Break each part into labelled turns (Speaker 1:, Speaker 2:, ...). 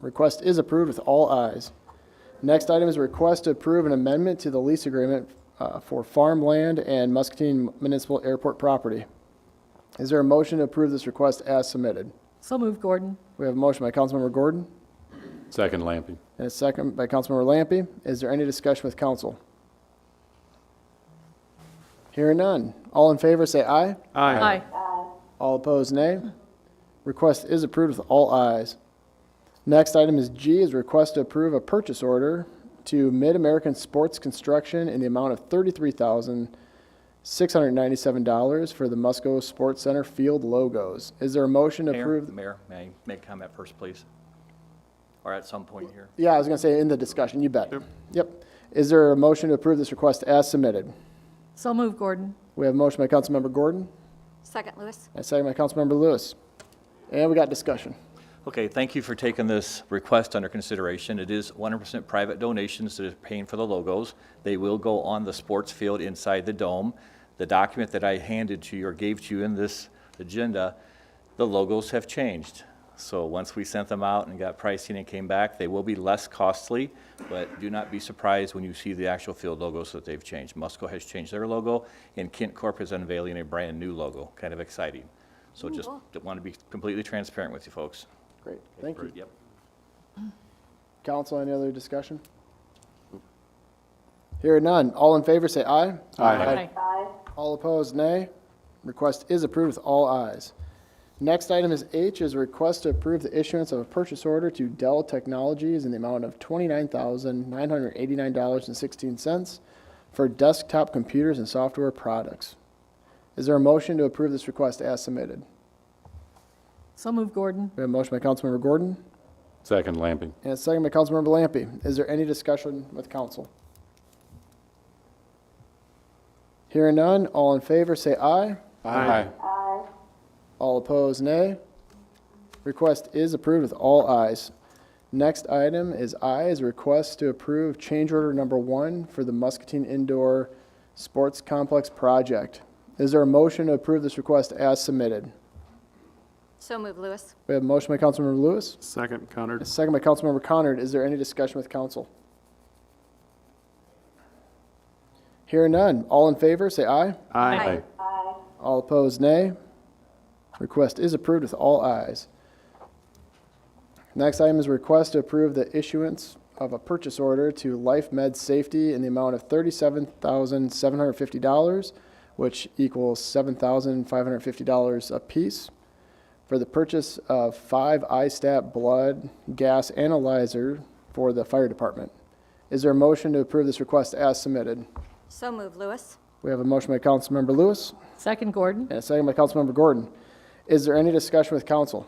Speaker 1: Request is approved with all ayes. Next item is a request to approve an amendment to the lease agreement uh, for farmland and Muscatine Municipal Airport property. Is there a motion to approve this request as submitted?
Speaker 2: So moved, Gordon.
Speaker 1: We have a motion by Councilmember Gordon
Speaker 3: Second Lampy.
Speaker 1: and a second by Councilmember Lampy. Is there any discussion with council? Hearing none. All in favor, say aye.
Speaker 2: Aye.
Speaker 1: All opposed, nay. Request is approved with all ayes. Next item is G, is request to approve a purchase order to Mid-American Sports Construction in the amount of $33,697 for the Musco Sports Center field logos. Is there a motion to
Speaker 4: Mayor,
Speaker 1: approve?
Speaker 4: Mayor, may I make comment first, please? Or at some point here?
Speaker 1: Yeah, I was going to say in the discussion, you bet. Yep. Is there a motion to approve this request as submitted?
Speaker 2: So moved, Gordon.
Speaker 1: We have a motion by Councilmember Gordon
Speaker 5: Second, Lewis.
Speaker 1: and a second by Councilmember Lewis. And we got discussion.
Speaker 4: Okay, thank you for taking this request under consideration. It is 100% private donations that are paying for the logos. They will go on the sports field inside the dome. The document that I handed to you or gave to you in this agenda, the logos have changed. So once we sent them out and got pricing and came back, they will be less costly, but do not be surprised when you see the actual field logos that they've changed. Musco has changed their logo, and Kent Corp is unveiling a brand-new logo. Kind of exciting. So just want to be completely transparent with you folks.
Speaker 1: Great, thank you.
Speaker 4: Yep.
Speaker 1: Council, any other discussion? Hearing none. All in favor, say aye.
Speaker 2: Aye.
Speaker 1: All opposed, nay. Request is approved with all ayes. Next item is H, is a request to approve the issuance of a purchase order to Dell Technologies in the amount of $29,989.16 for desktop computers and software products. Is there a motion to approve this request as submitted?
Speaker 2: So moved, Gordon.
Speaker 1: We have a motion by Councilmember Gordon
Speaker 3: Second Lampy.
Speaker 1: and a second by Councilmember Lampy. Is there any discussion with council? Hearing none, all in favor, say aye.
Speaker 3: Aye.
Speaker 1: All opposed, nay. Request is approved with all ayes. Next item is I, is a request to approve change order number one for the Muscatine Indoor Sports Complex project. Is there a motion to approve this request as submitted?
Speaker 5: So move, Lewis.
Speaker 1: We have a motion by Councilmember Lewis,
Speaker 6: Second,
Speaker 1: a
Speaker 6: Connor.
Speaker 1: second by Councilmember Conard. Is there any discussion with council? Hearing none. All in favor, say aye.
Speaker 6: Aye.
Speaker 1: All opposed, nay. Request is approved with all ayes. Next item is request to approve the issuance of a purchase order to Life Med Safety in the amount of thirty-seven thousand seven hundred fifty dollars, which equals seven thousand five hundred fifty dollars apiece, for the purchase of five ISTAT blood gas analyzer for the fire department. Is there a motion to approve this request as submitted?
Speaker 5: So move, Lewis.
Speaker 1: We have a motion by Councilmember Lewis.
Speaker 2: Second, Gordon.
Speaker 1: And a second by Councilmember Gordon. Is there any discussion with council?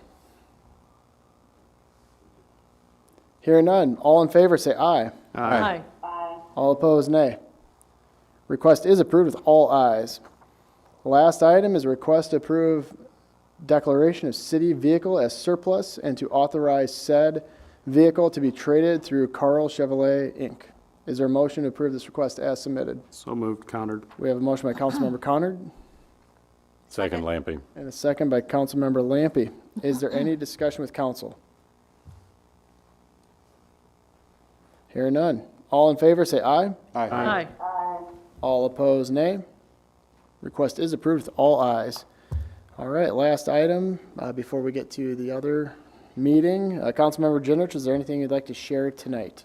Speaker 1: Hearing none. All in favor, say aye.
Speaker 2: Aye.
Speaker 1: All opposed, nay. Request is approved with all ayes. Last item is request to approve declaration of city vehicle as surplus and to authorize said vehicle to be traded through Carl Chevrolet, Inc. Is there a motion to approve this request as submitted?
Speaker 6: So moved, Connor.
Speaker 1: We have a motion by Councilmember Conard.
Speaker 3: Second Lampy.
Speaker 1: And a second by Councilmember Lampy. Is there any discussion with council? Hearing none. All in favor, say aye.
Speaker 2: Aye.
Speaker 1: All opposed, nay. Request is approved with all ayes. All right, last item, uh, before we get to the other meeting. Uh, Councilmember Jenrich, is there anything you'd like to share tonight?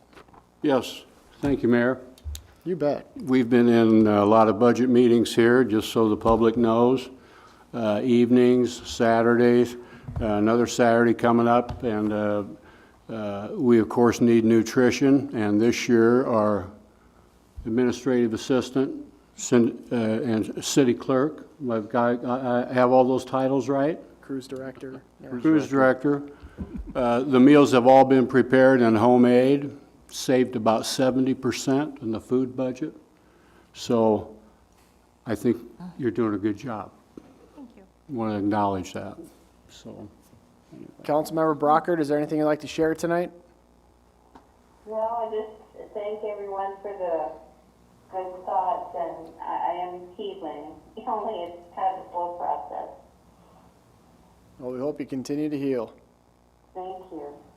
Speaker 6: Yes, thank you, Mayor.
Speaker 1: You bet.
Speaker 6: We've been in a lot of budget meetings here, just so the public knows. Uh, Evenings, Saturdays, uh, another Saturday coming up, and uh, uh, we, of course, need nutrition. And this year, our administrative assistant cin- uh, and city clerk, I've got- I I have all those titles right?
Speaker 1: Cruise director.
Speaker 6: Cruise director. Uh, The meals have all been prepared and homemade, saved about seventy percent in the food budget. So I think you're doing a good job. Thank you. Want to acknowledge that, so.
Speaker 1: Councilmember Brockert, is there anything you'd like to share tonight?
Speaker 7: Well, I just thank everyone for the good thoughts, and I, I am healing. Only it's kind of a slow process.
Speaker 1: Well, we hope you continue to heal.
Speaker 7: Thank you.